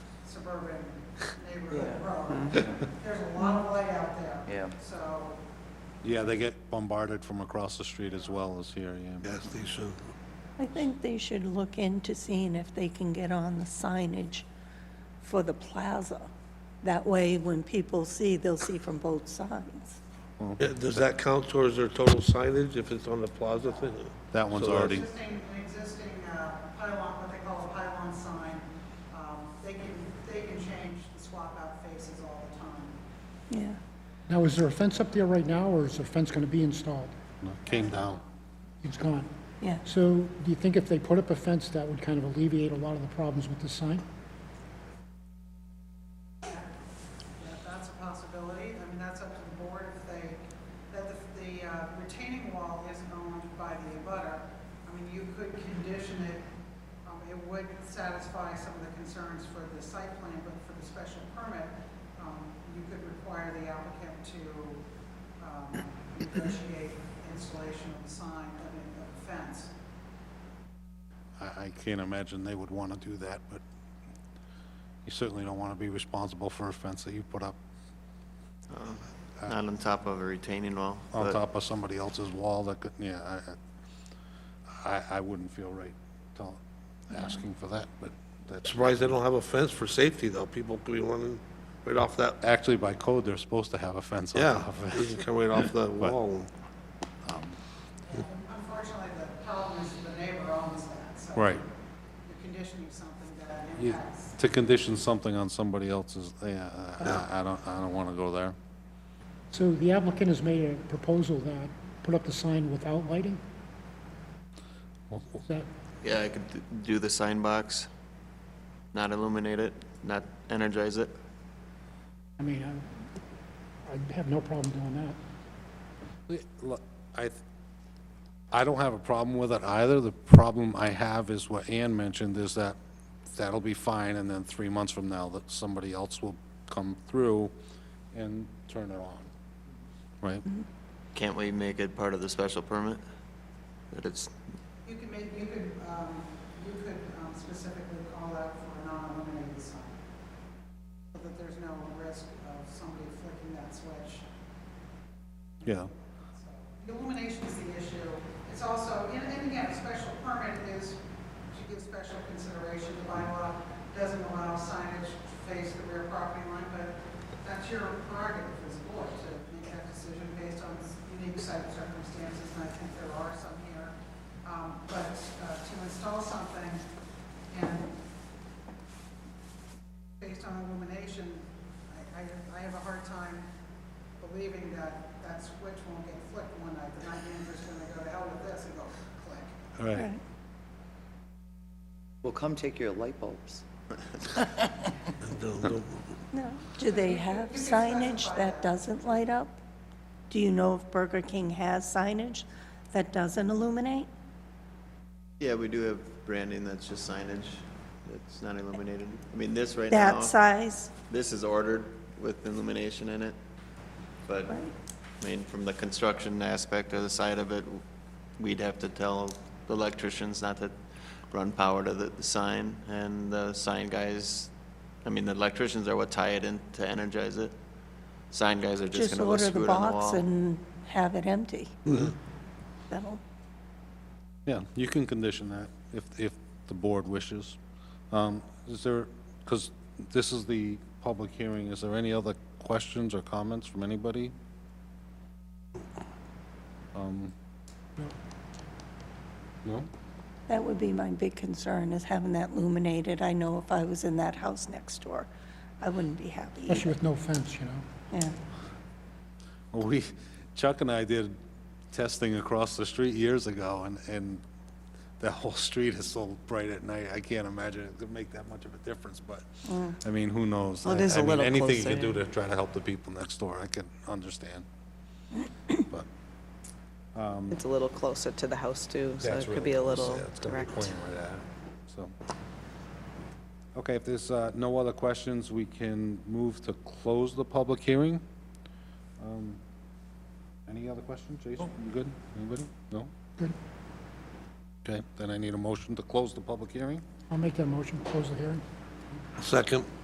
urban neighborhood Yeah. road. There's a lot of light out there. Yeah. So, Yeah, they get bombarded from across the street as well as here, yeah. Yes, they should. I think they should look into seeing if they can get on the signage for the plaza. That way, when people see, they'll see from both sides. Yeah, Does that count towards their total signage if it's on the plaza thing? That one's So that's- already, existing, an existing uh, pylon, what they call a pylon sign, um, they can, they can change and swap out faces all the time. Yeah. Now, is there a fence up there right now, or is the fence going to be installed? no, came down. It's gone. Yeah. So do you think if they put up a fence, that would kind of alleviate a lot of the problems with the sign? Yeah, that's a possibility. I mean, that's up to the board if they, that the, the uh, retaining wall isn't owned by the abutter. I mean, you could condition it, um, it would satisfy some of the concerns for the site plan, but for the special permit, um, you could require the applicant to, um, negotiate installation of the sign, I mean, of the fence. I, I can't imagine they would want to do that, but you certainly don't want to be responsible for a fence that you put up Not on top of a retaining wall. on but- top of somebody else's wall that could, yeah, I- I, I, I wouldn't feel right tell, asking for that, but that's, Surprised they don't have a fence for safety, though. People could be running right off that, actually by code, they're supposed to have a fence on yeah, top of it. they can come right off the wall. Unfortunately, the problem is the neighbor owns that, so. Right. You're conditioning something that You- impacts. To condition something on somebody else's, yeah, I, I don't, I don't want to go there. So the applicant has made a proposal that put up the sign without lighting? Is that, Yeah, I could d- do the sign box, not illuminate it, not energize it. I mean, I- I have no problem doing that. Yeah, look, I, th- I don't have a problem with it either. The problem I have is what Ann mentioned, is that that'll be fine, and then three months from now, that somebody else will come through and turn it on, right? Can't we make it part of the special permit? That it's, You could make, you could, um, you could um, specifically call out for a non-illuminated sign, so that there's no risk of somebody flicking that switch. Yeah. The illumination is the issue. It's also, and and again, a special permit is to give special consideration. The bylaw doesn't allow signage to face the rear property line, but that's your prerogative as a board to make that decision based on unique site circumstances, and I think there are some here. Um, But uh, to install something and based on illumination, I- I, I have a hard time believing that that switch won't get flipped one night, the night managers when they go to hell with this and go click. All right. Well, come take your light bulbs. Don't- don't- No. Do they have signage that doesn't light up? Do you know if Burger King has signage that doesn't illuminate? yeah, we do have branding that's just signage, that's not illuminated. I mean, this right now, That size? this is ordered with illumination in it. But, I mean, from the construction aspect or the side of it, we'd have to tell the electricians not to run power to the, the sign, and the sign guys, I mean, the electricians are what tie it in to energize it. Sign guys are just Just gonna go order the screw it on the box wall. Mm-hmm. and have it empty. That'll, Yeah, you can condition that if, if the board wishes. Um, Is there, because this is the public hearing, is there any other questions or comments from anybody? Um, No? that would be my big concern, is having that illuminated. I know if I was in that house next door, I wouldn't be happy Especially either. with no fence, you know? Yeah. Well, we, Chuck and I did testing across the street years ago, and, and that whole street is so bright at night, I can't imagine it could make that much of a difference, but, I mean, who knows? Mm. Well, it is I- I a mean, little Anything you can do closer, to try to help the people next door, I can understand. But It's a little closer to the house too, so that's it could really be a close, little yeah, Um, it's gonna be direct. pointing right at it, so. Okay, if there's uh, no other questions, we can move to close the public hearing. Um, Any other questions, Jason? You good? Anybody? No? Good. Okay, then I need a motion to close the public hearing. I'll make that motion, close the hearing. Second.